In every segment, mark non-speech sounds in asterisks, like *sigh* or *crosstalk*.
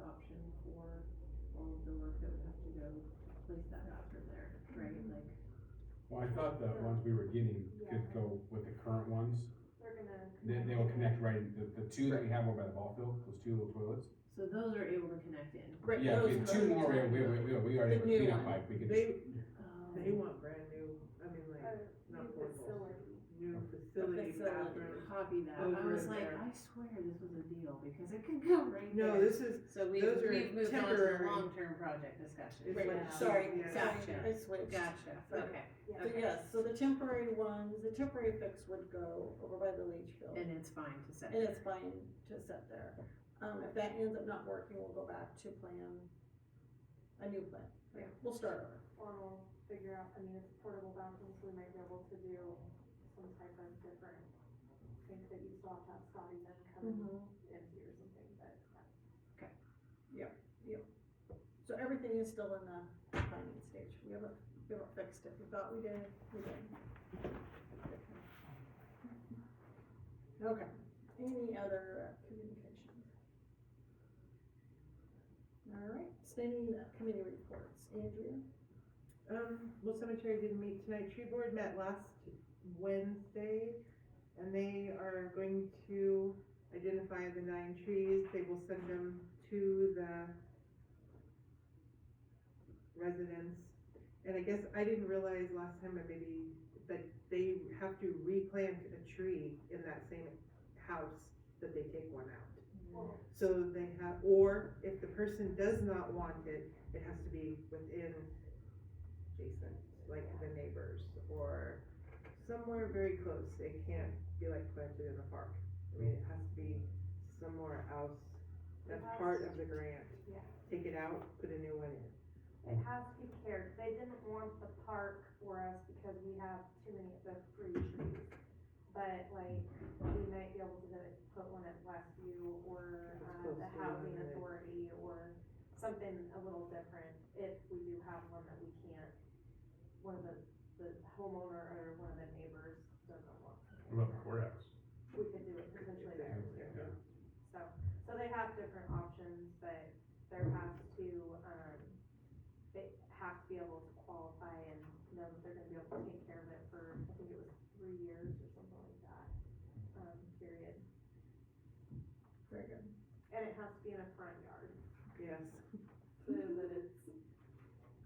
option for all of the work that would have to go to place that bathroom there, right, Mm-hmm. like, Well, I thought the ones we were getting could go with the current ones, They're gonna. then they will connect right, in- the, the two that we have over by the ball field, those two little toilets. so those are able to connect in. Right, Yeah, if we those had two boats more, are- we, we, we, we already The have a new cleanup one. pipe, we could just. They, they Um, want brand new, I mean, like, New not portable, facility. new The facility bathroom. Copy that, I Over was in like, there. I swear this was a deal, because it could go right there. No, this is, So we, Those are we've moved on to the temporary. long-term project discussion. It's Right, like- Sorry, Yeah. sorry, Gotcha. I switched. Gotcha, okay, So Yeah. yes, so the temporary ones, the temporary fix would go over by the leach field. and it's fine to set. And it's fine to set there. Um, if that ends up not working, we'll go back to plan, a new plan. Yeah. We'll start over. Or we'll figure out, I mean, it's portable bathrooms, we might be able to do some type of different things that you still have to have Scotty then come Mm-hmm. in and do or something, but. uh, So everything is still in the planning stage. We haven't, we haven't fixed it. We thought we did, we did. Okay, any other uh, communication? All right, standing uh, committee reports. Andrea? um, well, cemetery didn't meet tonight, tree board met last Wednesday, and they are going to identify the nine trees, they will send them to the residents. And I guess I didn't realize last time, but maybe, that they have to replant a tree in that same house that they take one out. So they have, or if the person does not want it, it has to be within adjacent, like the neighbors, or somewhere very close, it can't be like planted in a park. I mean, it has to be somewhere else, that's part of the grant. Yeah. Take it out, put a new one in. It has to be cared, they didn't want the park for us because we have too many of the free trees. But like, we might be able to put one at Westview or, uh, That's the close to the Housing internet. Authority or something a little different, if we do have one that we can't, one of the, the homeowner or one of the neighbors doesn't want. What about the courthouse? We could do it potentially there too. So, so they have different options, but there has to, um, they have to be able to qualify and know that they're gonna be able to take care of it for, I think it was three years or something like that, um, period. Very good. And it has to be in a front yard, Yes, so that it's,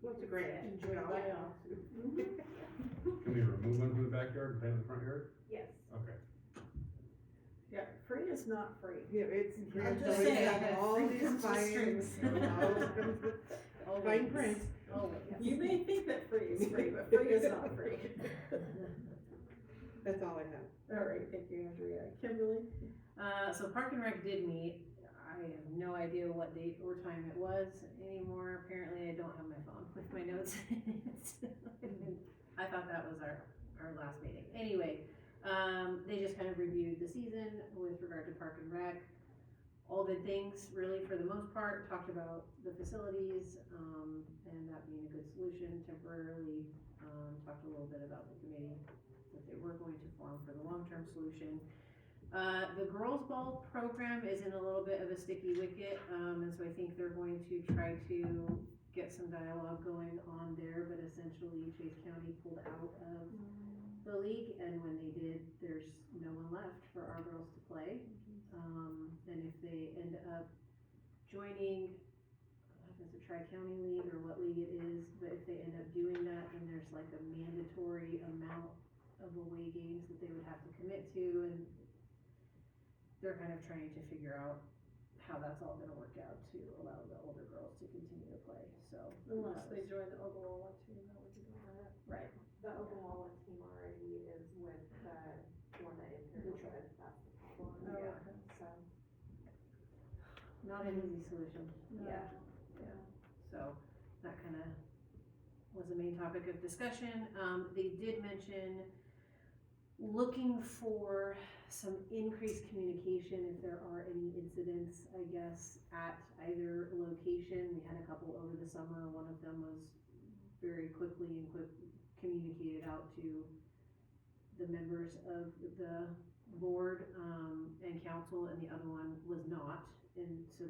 what's a grant? Enjoy the layout. Can we remove one from the backyard and plant in the front yard? yes. Okay. Yeah, free is not free. Yeah, it's. I'm grants just always saying, have All free these comes with fines, strings. always comes with *laughs* fine print. Oh, You may think that free is free, but free is not free. That's all I have. All right, thank you, Andrea. Kimberly? Uh, so Park and Rec did meet. I have no idea what date or time it was anymore. Apparently, I don't have my phone *laughs* with my notes. I thought that was our, our last meeting. Anyway, um, they just kind of reviewed the season with regard to Park and Rec. All the things, really, for the most part, talked about the facilities, um, and that being a good solution temporarily. Um, talked a little bit about the committee that they were going to form for the long-term solution. Uh, the girls' ball program is in a little bit of a sticky wicket, um, and so I think they're going to try to get some dialogue going on there, but essentially Chase County pulled out of the league, and when they did, there's no one left for our girls to play. Um, and if they end up joining, I don't know if it's a tri-county league or what league it is, but if they end up doing that, then there's like a mandatory amount of away games that they would have to commit to, and they're kind of trying to figure out how that's all gonna work out to allow the older girls to continue to play, so. Unless they join the Ogallala team, that would be good. Right, The Oklahoma team already is with the one that is here, that's the problem, Oh, yeah, so. not an easy solution. No. Yeah, yeah, so that kinda was the main topic of discussion, um, they did mention looking for some increased communication if there are any incidents, I guess, at either location, we had a couple over the summer, one of them was very quickly and quick communicated out to the members of the board, um, and council, and the other one was not, and so